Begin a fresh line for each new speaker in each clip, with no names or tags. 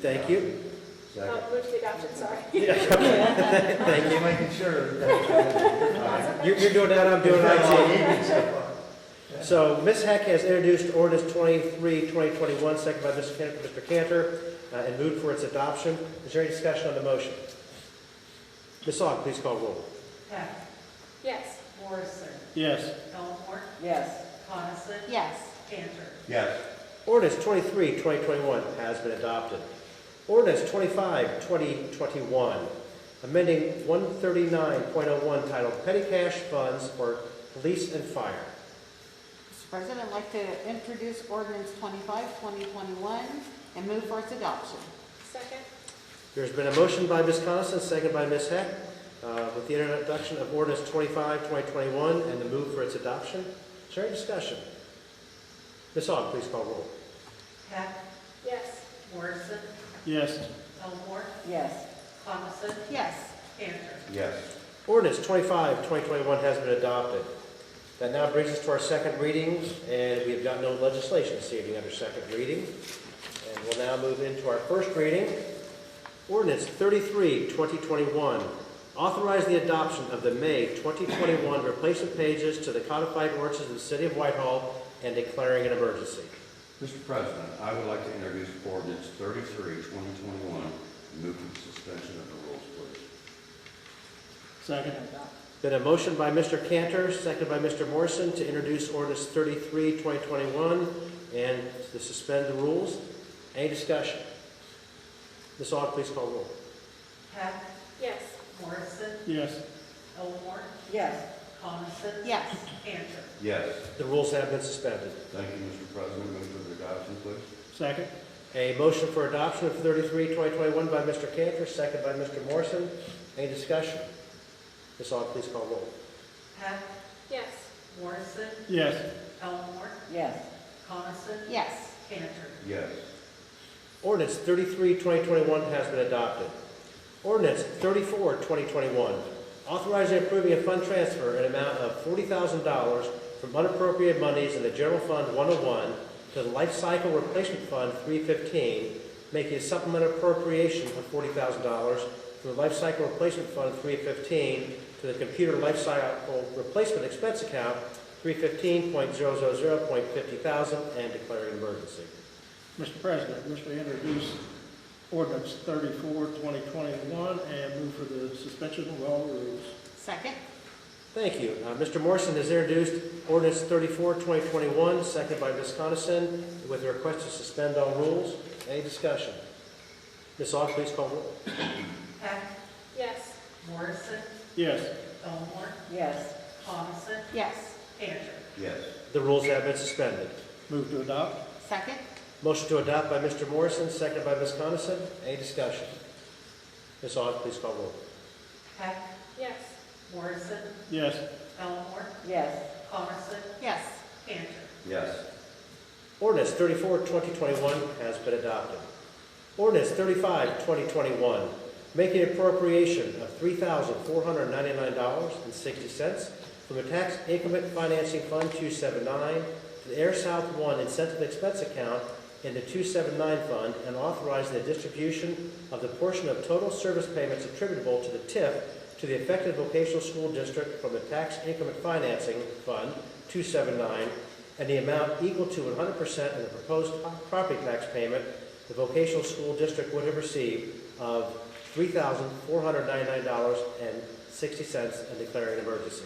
Thank you.
Oh, move to adoption, sorry.
Thank
You're making sure. that-
you. You're, you're doing that, I'm doing IT.
Aye.
So Ms. Heck has introduced ordinance 23, 2021, second by Mr. Can- Mr. Cantor, uh, and moved for its adoption. Is there any discussion on the motion? Ms. Aug, please call roll.
Heck,
Yes.
Morrison,
Yes.
Elmore,
Yes.
Coniston,
Yes.
Cantor.
Yes,
Ordinance 23, 2021 has been adopted. Ordinance 25, 2021, amending 139.01 titled Petty Cash Funds for Police and Fire.
Mr. President, I'd like to introduce ordinance 25, 2021, and move for its adoption.
Second?
There's been a motion by Ms. Coniston, second by Ms. Heck, uh, with the introduction of ordinance 25, 2021, and the move for its adoption. Is there any discussion? Ms. Aug, please call roll.
Heck,
Yes.
Morrison,
Yes.
Elmore,
Yes.
Coniston,
Yes.
Cantor.
yes,
Ordinance 25, 2021 has been adopted. That now brings us to our second reading, and we have got no legislation this evening under second reading. And we'll now move into our first reading. Ordinance 33, 2021, authorize the adoption of the May 2021 replacement pages to the codified ordinances of the city of Whitehall and declaring an emergency.
Mr. President, I would like to introduce ordinance 33, 2021, move for the suspension of the rules, please.
Second. Been a motion by Mr. Cantor, seconded by Mr. Morrison to introduce ordinance 33, 2021, and to suspend the rules. Any discussion? Ms. Aug, please call roll.
Heck,
Yes.
Morrison,
Yes.
Elmore,
Yes.
Coniston.
Yes.
Cantor.
Yes,
The rules have been suspended.
thank you, Mr. President, move for the adoption, please.
Second. A motion for adoption of 33, 2021 by Mr. Cantor, seconded by Mr. Morrison. Any discussion? Ms. Aug, please call roll.
Heck,
Yes.
Morrison,
Yes.
Elmore,
Yes.
Coniston.
Yes.
Cantor.
Yes,
Ordinance 33, 2021 has been adopted. Ordinance 34, 2021, authorizing and approving a fund transfer in amount of $40,000 from unappropriated monies in the General Fund 101 to the Life Cycle Replacement Fund 315, making a supplemental appropriation of $40,000 from the Life Cycle Replacement Fund 315 to the Computer Life Cycle Replacement Expense Account 315.000.50,000 and declaring an emergency.
Mr. President, I wish to introduce ordinance 34, 2021, and move for the suspension of all rules.
Second?
Thank you. Uh, Mr. Morrison has introduced ordinance 34, 2021, seconded by Ms. Coniston, with a request to suspend all rules. Any discussion? Ms. Aug, please call roll.
Heck,
Yes.
Morrison,
Yes.
Elmore,
Yes.
Coniston,
Yes.
Cantor.
yes,
The rules have been suspended.
Move to adopt?
Second?
Motion to adopt by Mr. Morrison, seconded by Ms. Coniston. Any discussion? Ms. Aug, please call roll.
Heck,
Yes.
Morrison,
Yes.
Elmore,
Yes.
Coniston,
Yes.
Cantor.
yes,
Ordinance 34, 2021 has been adopted. Ordinance 35, 2021, making appropriation of $3,499.60 from the Tax Increment Financing Fund 279 to the Air South One Incentive Expense Account in the 279 Fund and authorizing the distribution of the portion of total service payments attributable to the TIF to the affected vocational school district from the Tax Increment Financing Fund 279 and the amount equal to 100% of the proposed property tax payment the vocational school district would have received of $3,499.60 and declaring an emergency.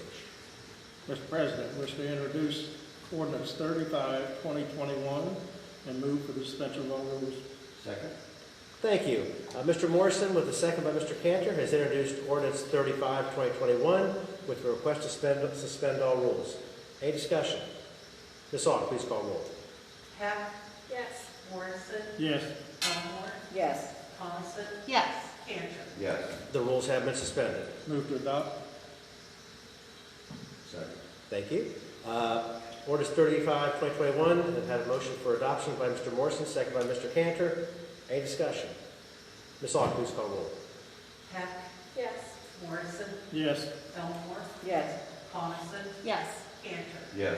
Mr. President, I wish to introduce ordinance 35, 2021, and move for the suspension of all rules.
second,
Thank you. Uh, Mr. Morrison, with the second by Mr. Cantor, has introduced ordinance 35, 2021, with the request to suspend, suspend all rules. Any discussion? Ms. Aug, please call roll.
Heck,
Yes.
Morrison,
Yes.
Elmore,
Yes.
Coniston,
Yes.
Cantor.
yes,
The rules have been suspended.
Move to adopt?
second,
Thank you. Uh, Ordinance 35, 2021, and had a motion for adoption by Mr. Morrison, second by Mr. Cantor. Any discussion? Ms. Aug, please call roll.
Heck,
Yes.
Morrison,
Yes.
Elmore,
Yes.
Coniston,
Yes.
Cantor.
yes.